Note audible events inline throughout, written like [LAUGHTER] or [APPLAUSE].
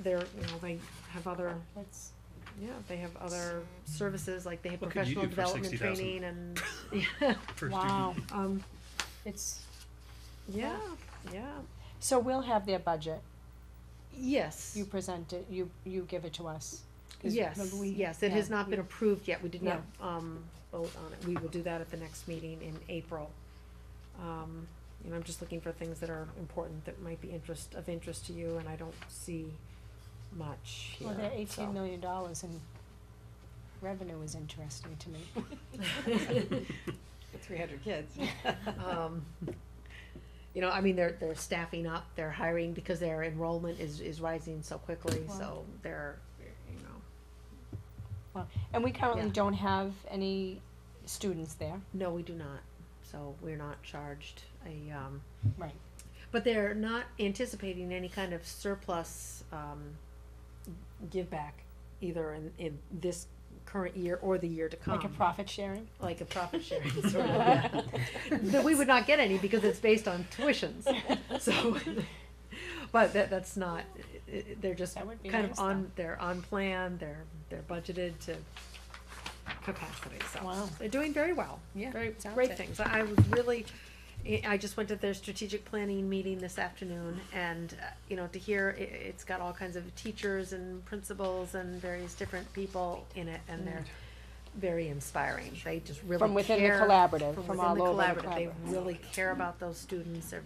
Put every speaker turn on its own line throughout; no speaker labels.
they're, you know, they have other,
That's,
yeah, they have other services, like they have
What could you
professional
do for
development
60,000?
training and,
[LAUGHS]
yeah,
for
wow,
student.
um,
it's,
yeah, yeah,
so we'll have their budget,
yes.
you present it, you, you give it to us. 'Cause
Yes,
remember we-
yes, it
yeah,
has not been
we-
approved yet, we did not, um, vote on it, we will do that at the next meeting in April. Um, you know, I'm just looking for things that are important, that might be interest, of interest to you, and I don't see much here,
Well, their
so.
eighteen million dollars in revenue is
[LAUGHS]
interesting to me. [LAUGHS]
[LAUGHS]
Three hundred kids. [LAUGHS]
Um, you know, I mean, they're, they're staffing up, they're hiring because their enrollment is, is rising so quickly,
Wow.
so they're, you know,
And we currently
Yeah.
don't have any students there.
no, we do not, so we're not charged a, um,
Right.
But they're not anticipating any kind of surplus um, give back either in, in this current year or the year to come.
Like a profit sharing.
Like a
[LAUGHS]
profit sharing. [LAUGHS] sort of, yeah. That we would not get any because it's based on
[LAUGHS]
tuitions. [LAUGHS] So, but that, that's not, i- i- they're just
That would be
kind
nice,
of on, they're on plan, they're, they're budgeted to capacity, so.
Wow.
They're doing very well.
Yeah,
Very,
sounds
great
it.
things. I I was really, I- I just went to their strategic planning meeting this afternoon and, uh, you know, to hear, i it's got all kinds of teachers and principals and various different people in it and they're very inspiring. They just really
Mm. From within the
care-
collaborative,
From
from
within the
all over the
collaborative, they
collaborative.
really care about those students. They're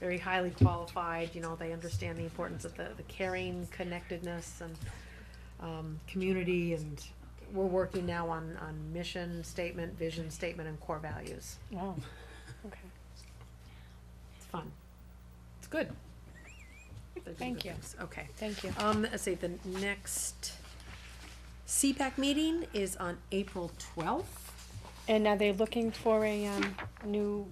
very highly qualified, you know, they understand the importance of the, the caring, connectedness and, um, community and we're working now on, on mission statement, vision statement and core values.
Oh, okay.
It's fun. It's good. They're doing
Thank
good
you.
things. Okay.
Thank you.
Um, let's see, the next CPAC meeting is on April twelfth.
And are they looking for a, um, new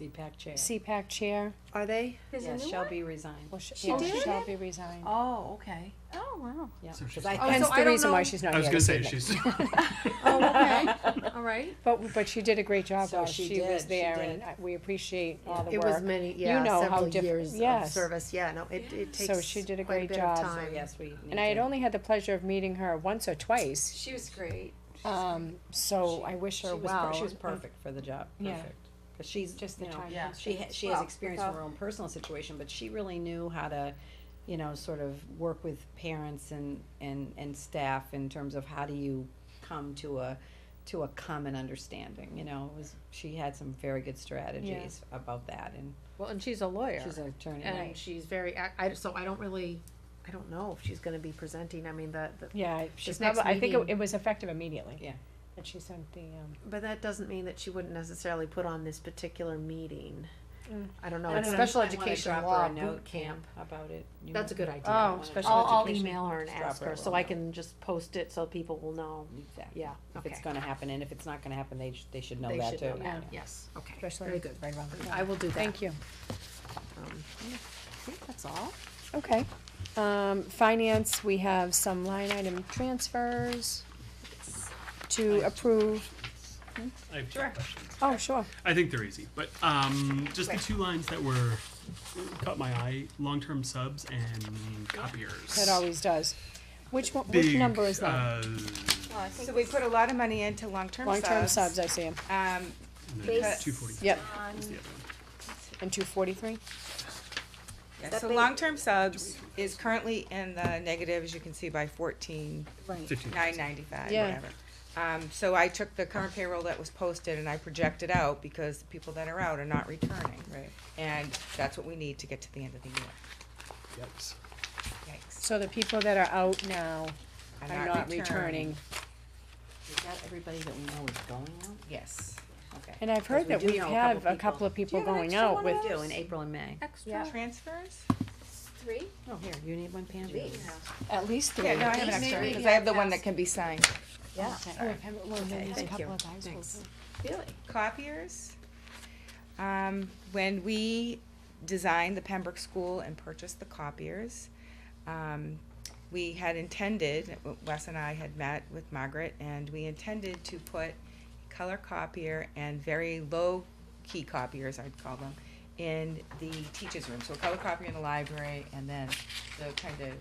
CPAC chair.
CPAC chair?
Are they?
There's
Yeah,
a new
Shelby resigned.
Well, sh-
She
yeah,
did?
Shall be resigned.
Oh, okay.
one? Oh, wow.
Yeah.
So she's-
But I
Oh,
Hence
so I
the
don't
reason why
know-
she's not
I
here.
was gonna
this
say,
evening.
she's,
Oh, [LAUGHS] okay, all right.
But, but she did a great job,
So
while
she
she was
did, she
there,
did.
and I- we appreciate all the
It was
work.
many, yeah,
know how
several
diff-
years of
yes.
service, yeah, no, it, it
So
takes
she did a
quite
great
bit of
job.
So
time.
Oh, yes, we. need
And I had
to-
only had the pleasure of meeting her once or twice,
She was great.
um, so I wish
She
her
was, per-
well.
she was perfect for the job,
Yeah.
perfect. Cause she's,
Just the
you know,
time.
Yeah.
she ha- she has
Well,
experience from her own personal situation, but she really knew how to, you know, sort of work with parents and and and staff in terms of how do you come to a to a common understanding. You know, it was she had some very good strategies about that, and
Well, and she's a lawyer,
she's an attorney.
and
right?
she's very, ac- I, so I don't really, I don't know if she's gonna be presenting, I mean, the, the,
Yeah, she
This next
probably, I think it,
meeting-
it was effective immediately.
Yeah.
And she sent the, um,
but that doesn't mean that she wouldn't necessarily put on this particular meeting.
Mm.
I don't know,
I don't
it's
know,
special
you might wanna
education
drop her
law
a note
boot camp.
about it. You
That's a
might-
good idea.
I
Oh,
wanna
special
drop-
I'll, I'll
education.
email her and
Drop
ask
her a
her, so
little
I
note.
can just post it so people will know,
Exactly.
yeah,
If
okay.
it's gonna happen, and if it's not gonna happen, they sh- they should know
They
that
should
too.
know
yeah.
that, yes, okay,
special
very
ed,
good.
right around the
I
corner.
will do that.
Thank you.
Um, I think that's all.
Okay. Um, finance, we have some line item transfers to approve.
[LAUGHS] I have two
Sure.
questions.
Oh, sure.
I think they're easy, but um, just the
Okay.
two lines that were caught my eye: long-term subs and copiers.
That always does. Which one, which
Big,
number is that?
Uh,
So we put a lot of money into long-term subs.
Long-term subs, I see 'em.
Um,
Base.
two forty.
Yep,
On
The other one.
and two forty-three?
yeah,
That
so
big-
long-term subs is currently in the negative, as you can see, by fourteen
Fifteen.
nine ninety-five,
Yeah.
whatever. Um, so I took the current payroll that was posted and I projected out because the people that are out are not returning.
Right.
And that's what we need to get to the end of the year.
Yikes.
Yikes.
So the people that are out now are not returning.
Is that everybody that we know is going out?
Yes.
Okay.
And I've heard that
Because we do
we
know a
have
couple
a couple
people.
of people
have an
going
extra
out
one
with.
of
Do in April and May.
extra
Transfers?
three?
Oh, here, you need one, Pam?
Three.
At least three.
Yeah, no, I have an
Maybe
extra,
we
because
have
I have the one
to
that can be signed.
Yeah.
Oh, if I- well, maybe there's a
thank you.
couple of high schools.
Thanks.
Really?
copiers. Um, when we designed the Pembroke School and purchased the copiers, um, we had intended, Wes and I had met with Margaret, and we intended to put color copier and very low key copiers, I'd call them, in the teacher's room. So a color copier in the library and then the kind of